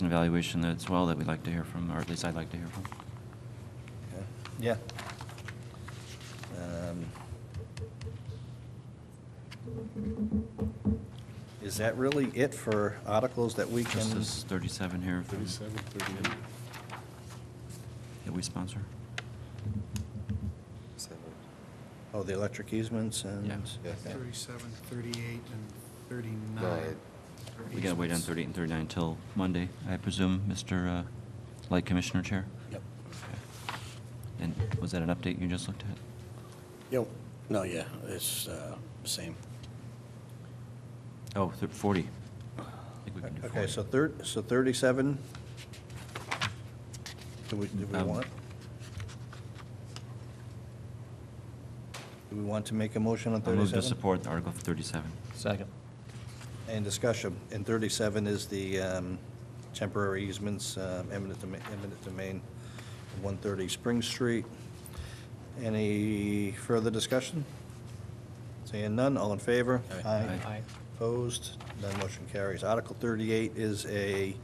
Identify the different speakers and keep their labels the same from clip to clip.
Speaker 1: an evaluation as well that we'd like to hear from, or at least I'd like to hear from.
Speaker 2: Okay. Yeah. Um, Is that really it for articles that we
Speaker 1: Just
Speaker 2: can,
Speaker 1: this 37 here from-
Speaker 3: 37, 38.
Speaker 1: that we sponsor.
Speaker 2: oh, the electric easements and?
Speaker 1: Yeah.
Speaker 2: okay.
Speaker 4: 37, 38, and 39.
Speaker 3: Right.
Speaker 1: We gotta wait on 38 and 39 until Monday, I presume, Mr. uh, Light Commissioner Chair?
Speaker 5: Yep.
Speaker 1: Okay. And was that an update you just looked at?
Speaker 5: Yep. No, yeah, it's uh, same.
Speaker 1: Oh, thir- 40. I think we can do 40.
Speaker 2: Okay, so thir, so thirty-seven? Do we, do we
Speaker 1: Um,
Speaker 2: want? Do we want to make a motion on
Speaker 1: I'll
Speaker 2: thirty-seven?
Speaker 1: move to support Article 37.
Speaker 6: Second.
Speaker 2: And discussion, and 37 is the um, temporary easements, um, eminent doma- eminent domain, 130 Spring Street. Any further discussion? Seeing none, all in favor?
Speaker 1: Aye.
Speaker 6: Aye.
Speaker 2: Opposed? None motion carries. Article 38 is a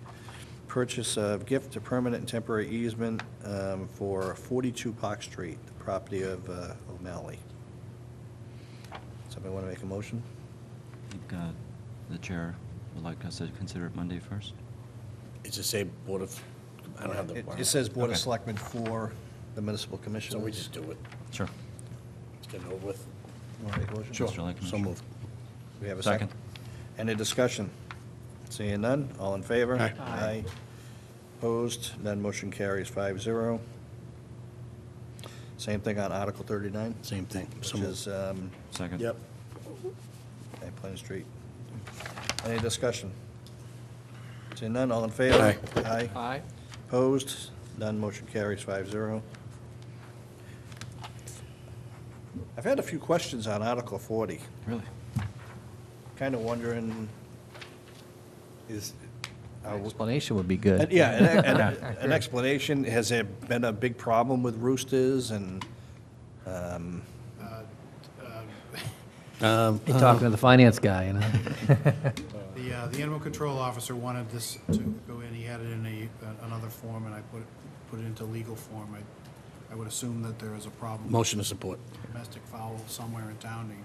Speaker 2: purchase of gift to permanent and temporary easement um, for 42 Park Street, the property of uh, O'Malley. Somebody want to make a motion?
Speaker 1: I think uh, the chair would like us to consider it Monday first.
Speaker 5: It's the same Board of, I don't have the.
Speaker 2: It- It says Board of
Speaker 1: Okay.
Speaker 2: Selectmen for the municipal commission.
Speaker 5: So we just do it.
Speaker 1: Sure.
Speaker 5: Let's get it over with.
Speaker 1: Sure. Mr. Light
Speaker 5: So
Speaker 1: Commissioner.
Speaker 5: moved.
Speaker 2: We have a
Speaker 1: Second.
Speaker 2: second. Any discussion? Seeing none, all in favor?
Speaker 5: Aye.
Speaker 2: Aye. Opposed, none motion carries five zero. Same thing on Article 39,
Speaker 5: Same thing. So
Speaker 2: which is
Speaker 5: moved.
Speaker 2: um,
Speaker 1: Second.
Speaker 5: Yep.
Speaker 2: okay, Plain Street. Any discussion? Seeing none, all in favor?
Speaker 5: Aye.
Speaker 2: Aye.
Speaker 6: Aye.
Speaker 2: Opposed? None, motion carries five zero. I've had a few questions on Article 40.
Speaker 1: Really?
Speaker 2: Kind of wondering, is, are we-
Speaker 6: Explanation would be good.
Speaker 2: and, yeah, an- an an explanation, has there been a big problem with roosters and, um,
Speaker 5: Um,
Speaker 6: You're talking to the finance guy, you know?
Speaker 4: The, uh, the animal control officer wanted this to go in, he had it in a, uh, another form, and I put, it put it into legal form. I, I would assume that there is a problem. with
Speaker 5: Motion to support.
Speaker 4: Domestic fowl somewhere in town, and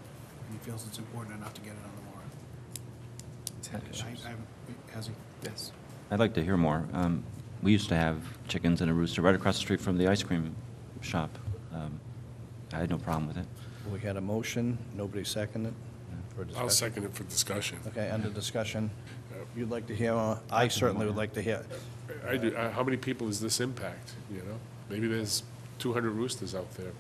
Speaker 4: he feels it's important enough to get it on the warrant. I- I haven't- Has he? Yes.
Speaker 1: I'd like to hear more. Um, We used to have chickens and a rooster right across the street from the ice cream shop. Um, I had no problem with it.
Speaker 2: we had a motion, nobody seconded for discussion?
Speaker 3: I'll second it for discussion.
Speaker 2: Okay, under discussion. You'd like to hear, uh, I certainly would like to hear,
Speaker 3: I do, uh, how many people does this impact, you know? Maybe there's 200 roosters out there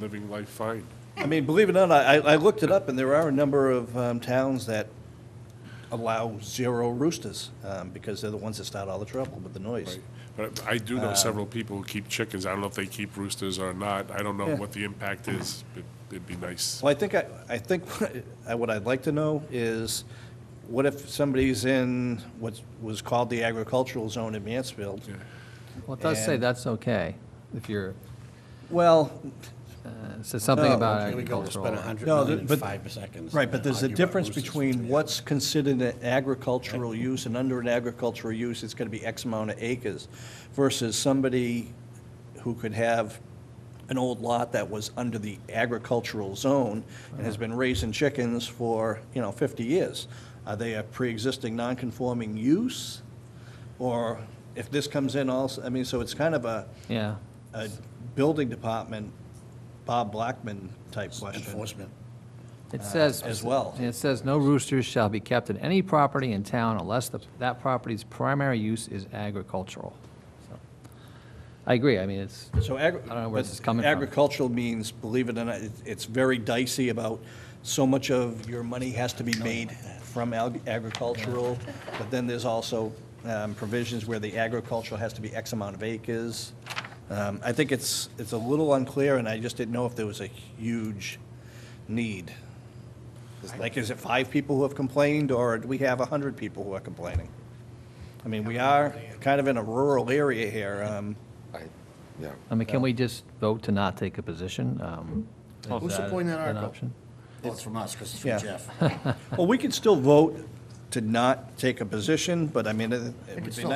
Speaker 3: living life fine.
Speaker 2: I mean, believe it or not, I, I looked it up, and there are a number of um, towns that allow zero roosters, um, because they're the ones that start all the trouble with the noise.
Speaker 3: right? But I do know several people who keep chickens. I don't know if they keep roosters or not. I don't know
Speaker 2: Yeah.
Speaker 3: what the impact is. It- It'd be nice.
Speaker 2: Well, I think, I, I think, I- what I'd like to know is, what if somebody's in what was called the agricultural zone in Mansfield?
Speaker 3: Yeah.
Speaker 6: Well, it does say
Speaker 2: And-
Speaker 6: that's okay, if you're,
Speaker 2: Well,
Speaker 6: uh, it says something
Speaker 2: No,
Speaker 6: about
Speaker 5: Here Oh, we go. We'll
Speaker 6: agricultural.
Speaker 5: spend a hundred
Speaker 2: No,
Speaker 5: million
Speaker 2: th-
Speaker 5: in
Speaker 2: but-
Speaker 5: five seconds.
Speaker 2: right, but there's a
Speaker 5: Argue about
Speaker 2: difference
Speaker 5: roosters.
Speaker 2: between what's considered an agricultural use, and under an agricultural use, it's gonna be X amount of acres, versus somebody who could have an old lot that was under the agricultural zone and has been raising chickens for, you know, fifty years. Are they a pre-existing non-conforming use? Or if this comes in also, I mean, so it's kind of a,
Speaker 6: Yeah,
Speaker 2: a building department, Bob Blackman type question.
Speaker 5: Enforcement. uh,
Speaker 6: it says.
Speaker 2: as well.
Speaker 6: It says, "No roosters shall be kept in any property in town unless the- that property's primary use is agricultural." So, I agree, I mean, it's,
Speaker 2: So agri-
Speaker 6: I don't know where
Speaker 2: but
Speaker 6: this is coming from.
Speaker 2: Agricultural means, believe it or not, it- it's very dicey about so much of your money has to be made from ag- agricultural, but then there's also um, provisions where the agricultural has to be X amount of acres. Um, I think it's, it's a little unclear, and I just didn't know if there was a huge need. Like, is it five people who have complained, or do we have 100 people who are complaining? I mean, we are kind of in a rural area here. um,
Speaker 6: I mean, can we just vote to not take a position? Um, is
Speaker 5: Who's
Speaker 6: that
Speaker 5: supporting that
Speaker 6: an
Speaker 5: article?
Speaker 6: option?
Speaker 5: Well, it's from us, because it's
Speaker 2: Yeah.
Speaker 5: from Jeff.
Speaker 2: Well, we could still vote to not take a position, but I mean, it it would be nice